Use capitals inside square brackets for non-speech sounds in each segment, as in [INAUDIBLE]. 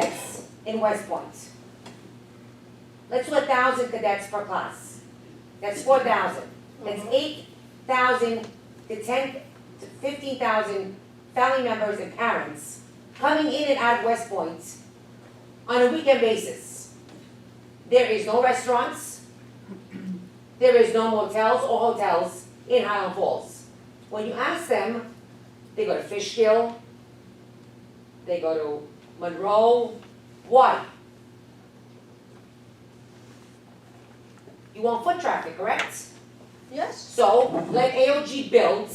cadets in West Point. Let's do a thousand cadets per class. That's four thousand. That's eight thousand to ten, to fifteen thousand family members and parents coming in and out of West Point on a weekend basis. There is no restaurants. There is no motels or hotels in Highland Falls. When you ask them, they go to Fishkill, they go to Monroe, why? You want foot traffic, correct? Yes. So let AOG build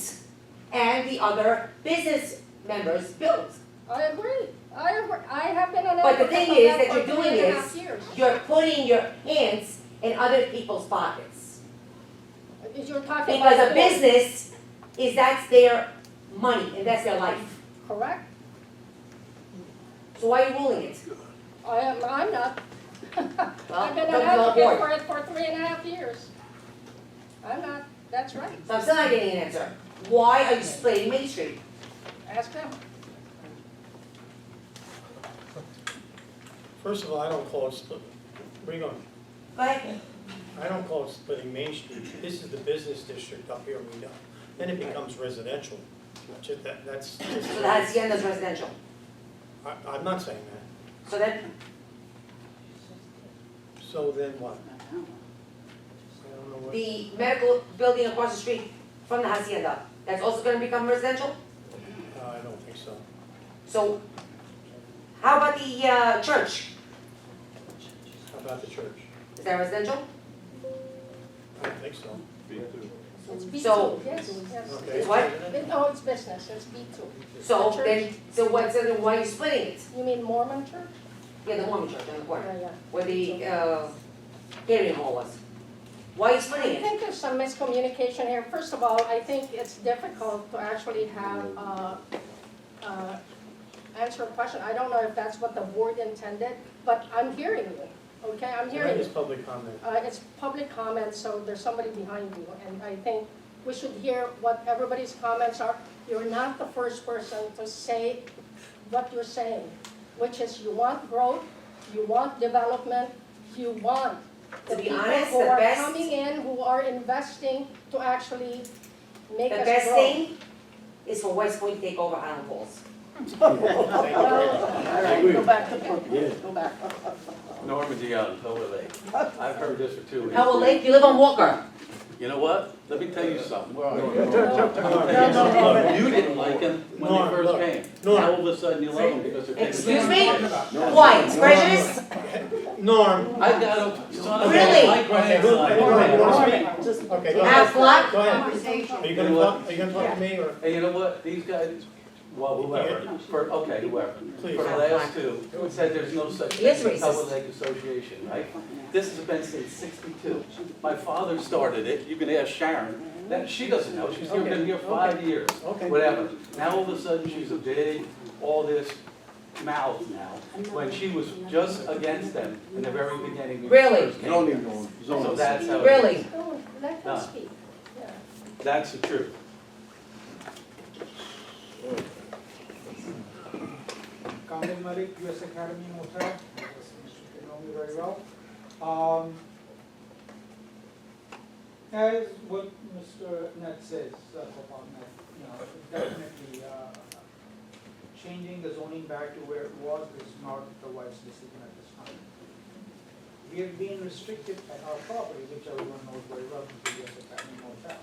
and the other business members build. I agree. I agree. I have been an But the advocate thing of is that that for you're three doing and a half is- years. You're putting your hands in other people's pockets. Because you're talking about. Because a doing- business is, that's their money and that's their life. Correct. So why are you ruling it? I am, I'm not. [LAUGHS] Well, I've been an don't go on advocate board. for it for three and a half years. I'm not, that's right. So I'm still not getting an answer. Why are you splitting Main Street? Ask them. First of all, I don't call it splitting. Where you going? Go ahead. I don't call it splitting Main Street. This is the business district up here, we know. Then it becomes residential. Ju- that- that's just- So the Hacienda's residential. I, I'm not saying that. So then So then what? I don't know what. the medical building across the street from the hacienda, that's also gonna become residential? No, uh, I don't think so. So how about the uh church? How about the church? Is that residential? I don't think so. It's B So- two, yes, yes. Okay. It's what? It- No, it's business, it's B two. So The church. then, so what's, then why are you splitting it? You mean Mormon church? Yeah, the Mormon church on the corner, Yeah, yeah. where the uh catering hall was. Why are you I splitting it? think there's some miscommunication here. First of all, I think it's difficult to actually have, uh, uh, answer a question. I don't know if that's what the board intended, but I'm hearing you, okay? I'm That hearing is you. public comment. Uh, It's public comment, so there's somebody behind you, and I think we should hear what everybody's comments are. You're not the first person to say what you're saying, which is you want growth, you want development, you want To the be people honest, who the are best- coming in, who are investing to actually The make us grow. best thing is for West Point to take over Highland Falls. Oh, Thank you very much. All right, go back to Brooklyn, go back. Normandy on Tower Lake. I've heard this for two weeks. Howell Lake, you live on Walker. You know what? Let me tell you something. No, no, no, no, no. You didn't like them when Norm, they first look. came. Norm. Now all of a sudden you love them because they're taking. Excuse me? advantage of you. Why, it's precious? Norm, I've got a son of Really? a, my Norm, grandson. Norm. Just- okay, go Ask ahead. what? Go ahead. Are Conversation. you gonna talk, are you gonna talk to me or? Hey, you know what? These guys, well, whoever, for, okay, whoever. Please. For the last two, who said there's no such thing Yes, as racist. Tower Lake Association, right? This has been since sixty-two. My father started it. You can ask Sharon. That, she doesn't know. She's here- been here five years. Okay. whatever. Now all of a sudden, she's a big, all this mouth now, when she was just against them in the very beginning. when she Really? first came here. So that's how. it is. Really? Oh, Let them Nah. speak, yeah. That's the truth. Kamil Malik, US Academy in Ottawa. You know me very well. Um, As what Mr. Net says, uh, Gopal Net, you know, definitely uh, changing the zoning back to where it was is not the wise decision at this time. We have been restricted at our property, which everyone knows very well, is the US Academy in Ottawa.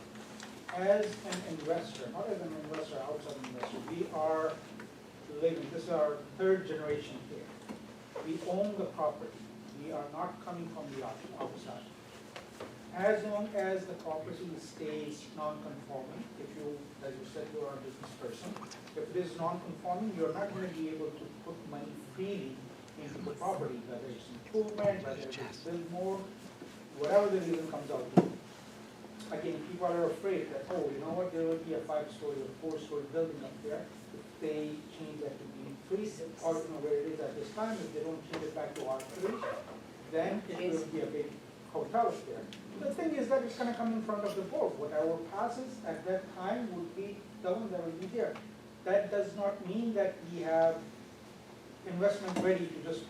As an investor, not as an investor, outside investor, we are living, this is our third generation here. We own the property, we are not coming from the out- outside. As long as the property stays non-conforming, if you, as you said, you are a business person, if it is non-conforming, you're not gonna be able to put money freely into the property, whether it's improvement, whether it's build more, whatever the reason comes out to. Again, people are afraid that, oh, you know what, there will be a five-story or four-story building up there, if they change that to be three, or you know where it is at this time, if they don't change it back to R three, then it will be a big hotel up there. The thing is that it's gonna come in front of the board, whatever passes at that time would be the one that will be there. That does not mean that we have investment ready to just